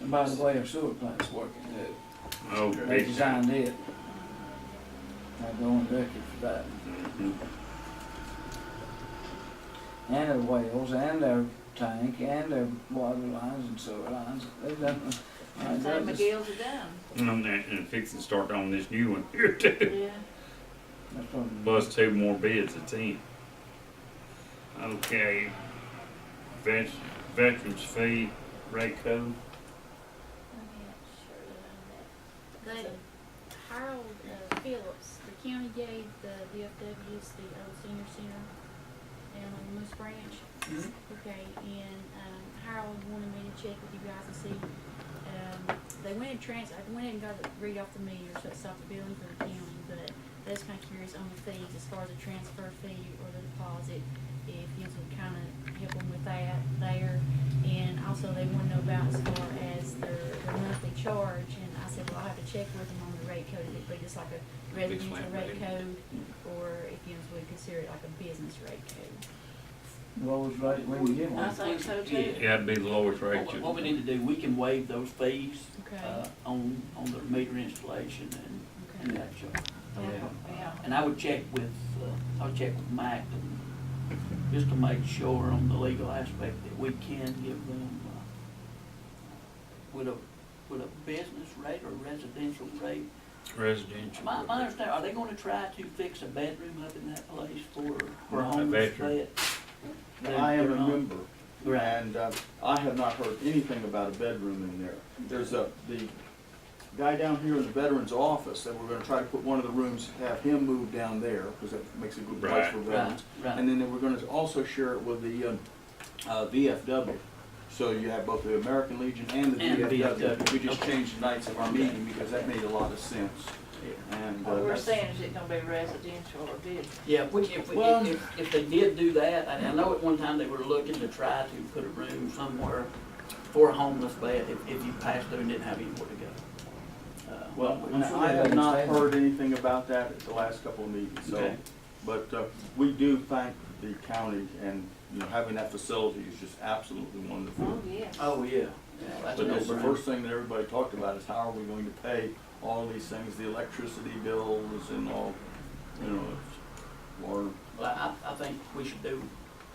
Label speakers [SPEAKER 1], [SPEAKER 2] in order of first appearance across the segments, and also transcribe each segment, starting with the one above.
[SPEAKER 1] And by the way, our sewer plant's working too.
[SPEAKER 2] Oh,
[SPEAKER 1] They
[SPEAKER 2] big time.
[SPEAKER 1] designed it. I'm going record for that.
[SPEAKER 2] Mhm.
[SPEAKER 1] And their wells, and their tank, and their water lines and sewer lines. They've done,
[SPEAKER 3] That's how
[SPEAKER 1] that is,
[SPEAKER 3] McGill's are done.
[SPEAKER 2] And that- and fix and start on this new one here too.
[SPEAKER 3] Yeah.
[SPEAKER 1] that's probably.
[SPEAKER 2] Plus two more bids at ten. Okay. Vet, veterans fee, rate code.
[SPEAKER 4] They Harold uh, Phillips, the county gave the VFWs the old senior center down on Moose Branch.
[SPEAKER 1] Mhm.
[SPEAKER 4] Okay, and, um, Harold wanted me to check with you guys and see, um, they went and trans, I went and got the read off the meter, so it's off the billing for the county, but that's kinda curious on the fees, as far as the transfer fee or the deposit, if you can kinda help them with that there. And also they wanna know about as far as their, their monthly charge, and I said, well, I'll have to check with them on the rate code, it'd be just like a residential
[SPEAKER 5] flat
[SPEAKER 4] rate
[SPEAKER 5] rate.
[SPEAKER 4] code, or if you know, would consider it like a business rate code.
[SPEAKER 1] Rolls right when you get
[SPEAKER 3] I
[SPEAKER 1] one.
[SPEAKER 3] think so too.
[SPEAKER 5] Yeah.
[SPEAKER 2] That'd be the lowest
[SPEAKER 5] What-
[SPEAKER 2] rate.
[SPEAKER 5] What,
[SPEAKER 2] you-
[SPEAKER 5] what we need to do, we can waive those fees,
[SPEAKER 4] Okay,
[SPEAKER 5] uh, on, on the meter installation and, and
[SPEAKER 4] okay.
[SPEAKER 5] that sort.
[SPEAKER 2] Yeah.
[SPEAKER 3] Yeah.
[SPEAKER 5] And I would check with, uh, I'll check with Mike and just to make sure on the legal aspect that we can give them, uh, with a, with a business rate or residential rate.
[SPEAKER 2] Residential.
[SPEAKER 5] My, my understanding, are they gonna try to fix a bedroom up in that place for, for
[SPEAKER 2] A
[SPEAKER 5] homeless
[SPEAKER 2] veteran.
[SPEAKER 5] vet? They're-
[SPEAKER 6] I am
[SPEAKER 5] they're
[SPEAKER 6] a
[SPEAKER 5] not-
[SPEAKER 6] member,
[SPEAKER 5] Right,
[SPEAKER 6] and uh, I have not heard anything about a bedroom in there. There's a, the guy down here in the veterans office, that we're gonna try to put one of the rooms, have him move down there, because that makes a good place
[SPEAKER 2] Right.
[SPEAKER 6] for
[SPEAKER 5] right,
[SPEAKER 6] veterans.
[SPEAKER 5] right.
[SPEAKER 6] And then we're gonna also share it with the um, uh, VFW. So you have both the American Legion and the
[SPEAKER 5] And
[SPEAKER 6] VFW.
[SPEAKER 5] VFW.
[SPEAKER 6] We just
[SPEAKER 5] Okay.
[SPEAKER 6] changed the nights of our meeting, because that made a lot of sense. And, uh,
[SPEAKER 3] What we're
[SPEAKER 6] that's-
[SPEAKER 3] saying is it gonna be residential or business.
[SPEAKER 5] Yeah, if we, if, we-
[SPEAKER 6] Well-
[SPEAKER 5] if, if they did do that, and I know at one time they were looking to try to put a room somewhere for a homeless bed if, if you passed through and didn't have anywhere to go. Uh,
[SPEAKER 6] Well,
[SPEAKER 1] I'm sure
[SPEAKER 6] I
[SPEAKER 1] they
[SPEAKER 6] have not
[SPEAKER 1] understand.
[SPEAKER 6] heard anything about that at the last couple of meetings, so.
[SPEAKER 5] Okay.
[SPEAKER 6] But uh, we do thank the county and, you know, having that facility is just absolutely
[SPEAKER 3] Oh,
[SPEAKER 6] wonderful.
[SPEAKER 3] yes.
[SPEAKER 5] Oh, yeah. Yeah, that's a
[SPEAKER 6] But that's the
[SPEAKER 5] no-brainer.
[SPEAKER 6] first thing that everybody talked about is how are we going to pay all these things, the electricity bills and all, you know, it's water.
[SPEAKER 5] Well, I, I think we should do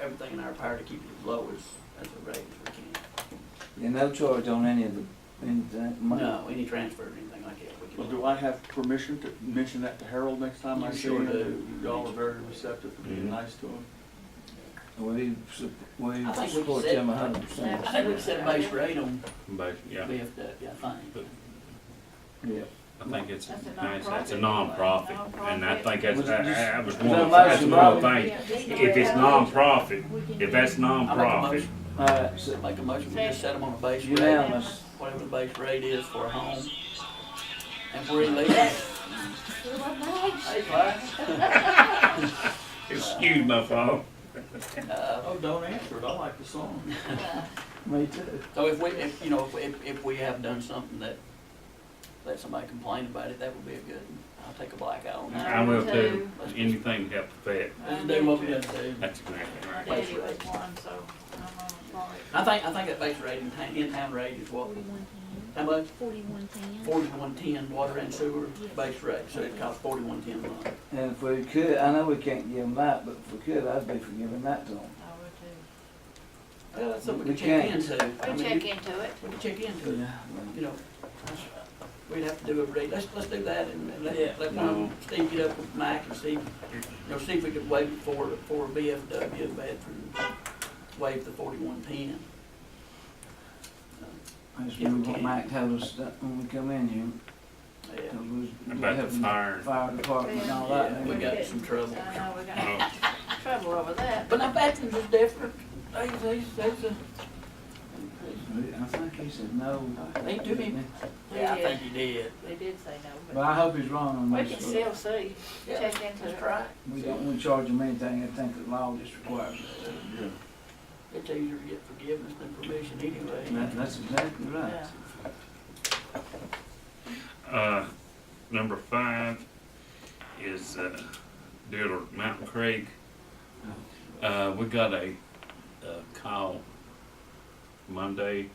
[SPEAKER 5] everything in our power to keep it as low as, as the rate as we can.
[SPEAKER 1] And no charge on any of the, any of that money.
[SPEAKER 5] No, any transfer or anything like that, we
[SPEAKER 6] Well,
[SPEAKER 5] can.
[SPEAKER 6] do I have permission to mention that to Harold next time I
[SPEAKER 5] You
[SPEAKER 6] see
[SPEAKER 5] sure
[SPEAKER 6] him?
[SPEAKER 5] do.
[SPEAKER 6] Y'all are very receptive for being
[SPEAKER 2] Mhm.
[SPEAKER 6] nice to him.
[SPEAKER 1] We, sup- we
[SPEAKER 5] I think we
[SPEAKER 1] support
[SPEAKER 5] said-
[SPEAKER 1] them a hundred percent.
[SPEAKER 5] I think we can set a base rate on
[SPEAKER 2] Bas- yeah.
[SPEAKER 5] VFW, I think.
[SPEAKER 1] Yeah.
[SPEAKER 2] I think it's
[SPEAKER 3] That's a
[SPEAKER 2] nice, that's a
[SPEAKER 3] nonprofit.
[SPEAKER 2] nonprofit, and I think that's,
[SPEAKER 1] Was it just-
[SPEAKER 2] I, I was
[SPEAKER 1] was
[SPEAKER 2] one,
[SPEAKER 1] that
[SPEAKER 2] of-
[SPEAKER 1] last
[SPEAKER 2] that's one of the
[SPEAKER 1] July?
[SPEAKER 2] things. If it's nonprofit, if that's
[SPEAKER 5] I make a
[SPEAKER 2] nonprofit,
[SPEAKER 5] motion,
[SPEAKER 1] All right, so
[SPEAKER 5] make a motion, we just set them on a base rate.
[SPEAKER 1] unanimous.
[SPEAKER 5] whatever the base rate is for a home. And for illegal, hey, Clyde,
[SPEAKER 2] excuse my fault.
[SPEAKER 5] uh,
[SPEAKER 6] Oh, don't answer it. I like the song.
[SPEAKER 1] Me too.
[SPEAKER 5] so if we, if, you know, if- if, if we have done something that, that somebody complained about it, that would be a good, one. I'll take a black eye on that.
[SPEAKER 2] I will do anything to help the vet,
[SPEAKER 5] Let's do what we gotta do.
[SPEAKER 2] that's exactly
[SPEAKER 3] My
[SPEAKER 2] right.
[SPEAKER 3] daddy was one, so I'm on it.
[SPEAKER 5] I think, I think that base rate, in town, in-town rate is what,
[SPEAKER 4] Forty-one ten,
[SPEAKER 5] how much?
[SPEAKER 4] forty-one ten.
[SPEAKER 5] Forty-one ten, water and sewer, base rate, so it costs forty-one ten a month.
[SPEAKER 1] And if we could, I know we can't give them that, but if we could, I'd be for giving that to them.
[SPEAKER 3] I would
[SPEAKER 5] Uh, that's something we
[SPEAKER 1] We
[SPEAKER 5] can check
[SPEAKER 1] can't.
[SPEAKER 5] into. I mean,
[SPEAKER 3] too. We
[SPEAKER 5] you-
[SPEAKER 3] check into it.
[SPEAKER 5] We can check into it.
[SPEAKER 1] Yeah.
[SPEAKER 5] you know, that's- we'd have to do a rate, let's, let's do that and and
[SPEAKER 1] Yeah.
[SPEAKER 5] let, let one, of them- Steve get up with Mike and see, you know, see if we could waive it for, for a BFW veteran, waive the forty-one ten.
[SPEAKER 1] That's really what Mike told us that when we come in here,
[SPEAKER 5] Yeah,
[SPEAKER 1] that we was
[SPEAKER 2] About the
[SPEAKER 1] having
[SPEAKER 2] fire.
[SPEAKER 1] fire department and all that.
[SPEAKER 5] Yeah, we
[SPEAKER 1] and
[SPEAKER 5] got in some trouble.
[SPEAKER 3] I know, we got
[SPEAKER 2] Oh,
[SPEAKER 3] trouble over that.
[SPEAKER 5] But now veterans are different, they, they, they,
[SPEAKER 1] we- I think he said no.
[SPEAKER 5] they do mean- yeah, I think he did.
[SPEAKER 3] They did say
[SPEAKER 1] But
[SPEAKER 3] no,
[SPEAKER 1] I hope he's wrong on
[SPEAKER 3] but
[SPEAKER 1] this.
[SPEAKER 3] we can
[SPEAKER 1] but
[SPEAKER 3] still see,
[SPEAKER 5] Yeah,
[SPEAKER 3] check into it.
[SPEAKER 5] That's right,
[SPEAKER 1] We don't want to charge him anything, I think the law just requires
[SPEAKER 6] Yeah.
[SPEAKER 5] it's easier to get forgiveness than permission
[SPEAKER 1] it.
[SPEAKER 5] anyway.
[SPEAKER 1] That- That's exactly right.
[SPEAKER 3] Yeah.
[SPEAKER 2] Uh, number five is, uh, Dealer Mountain Creek. Uh, we got a, uh call Monday